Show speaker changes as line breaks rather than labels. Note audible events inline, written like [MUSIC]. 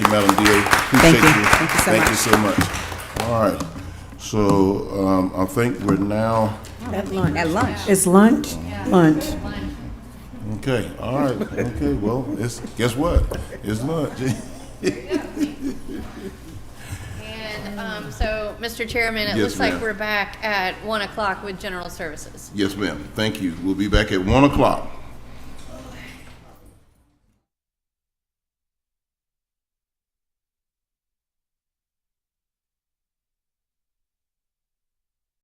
Madam DA.
Thank
Appreciate
you. Thank you so
Thank you so much. All right, so um, I think we're now,
At lunch. At lunch.
It's lunch? Lunch.
okay, all right, okay, well, it's, guess what? It's lunch. [LAUGHS]
And um, so, Mr. Chairman, it
Yes,
looks like
ma'am.
we're back at 1 o'clock with general services.
Yes, ma'am, thank you. We'll be back at 1 o'clock.